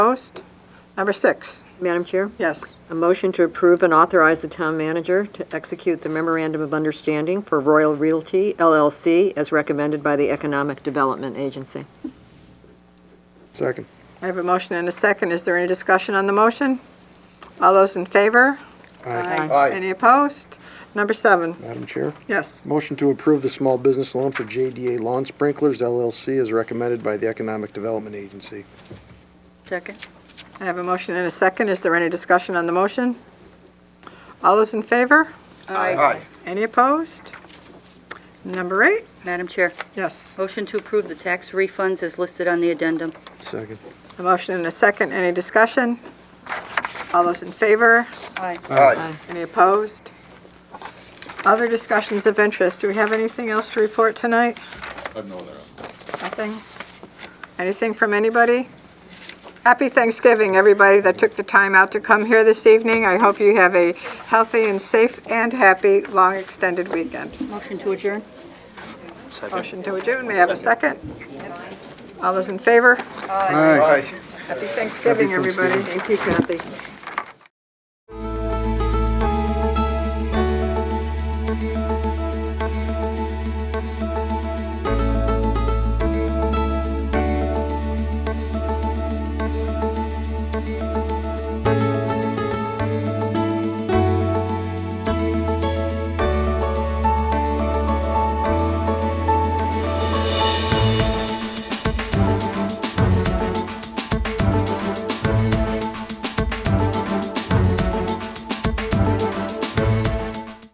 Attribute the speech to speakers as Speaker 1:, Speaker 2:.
Speaker 1: Opposed? Number six,
Speaker 2: Madam Chair,
Speaker 1: yes.
Speaker 2: a motion to approve and authorize the town manager to execute the memorandum of understanding for Royal Realty LLC as recommended by the Economic Development Agency.
Speaker 3: Second.
Speaker 1: I have a motion and a second. Is there any discussion on the motion? All those in favor?
Speaker 3: Aye.
Speaker 1: Any opposed? Number seven,
Speaker 3: Madam Chair,
Speaker 1: yes.
Speaker 3: motion to approve the small business loan for JDA Lawn Sprinklers LLC as recommended by the Economic Development Agency.
Speaker 4: Second.
Speaker 1: I have a motion and a second. Is there any discussion on the motion? All those in favor?
Speaker 3: Aye.
Speaker 1: Any opposed? Number eight,
Speaker 4: Madam Chair,
Speaker 1: yes.
Speaker 4: motion to approve the tax refunds as listed on the addendum.
Speaker 3: Second.
Speaker 1: A motion and a second. Any discussion? All those in favor?
Speaker 4: Aye.
Speaker 3: Aye.
Speaker 1: Any opposed? Other discussions of interest. Do we have anything else to report tonight?
Speaker 5: I've no other.
Speaker 1: Nothing? Anything from anybody? Happy Thanksgiving, everybody that took the time out to come here this evening. I hope you have a healthy and safe and happy, long extended weekend.
Speaker 4: Motion to adjourn.
Speaker 1: Motion to adjourn, may I have a second? All those in favor?
Speaker 3: Aye.
Speaker 1: Happy Thanksgiving, everybody.
Speaker 3: Thanksgiving.
Speaker 1: Thank you, Kathy.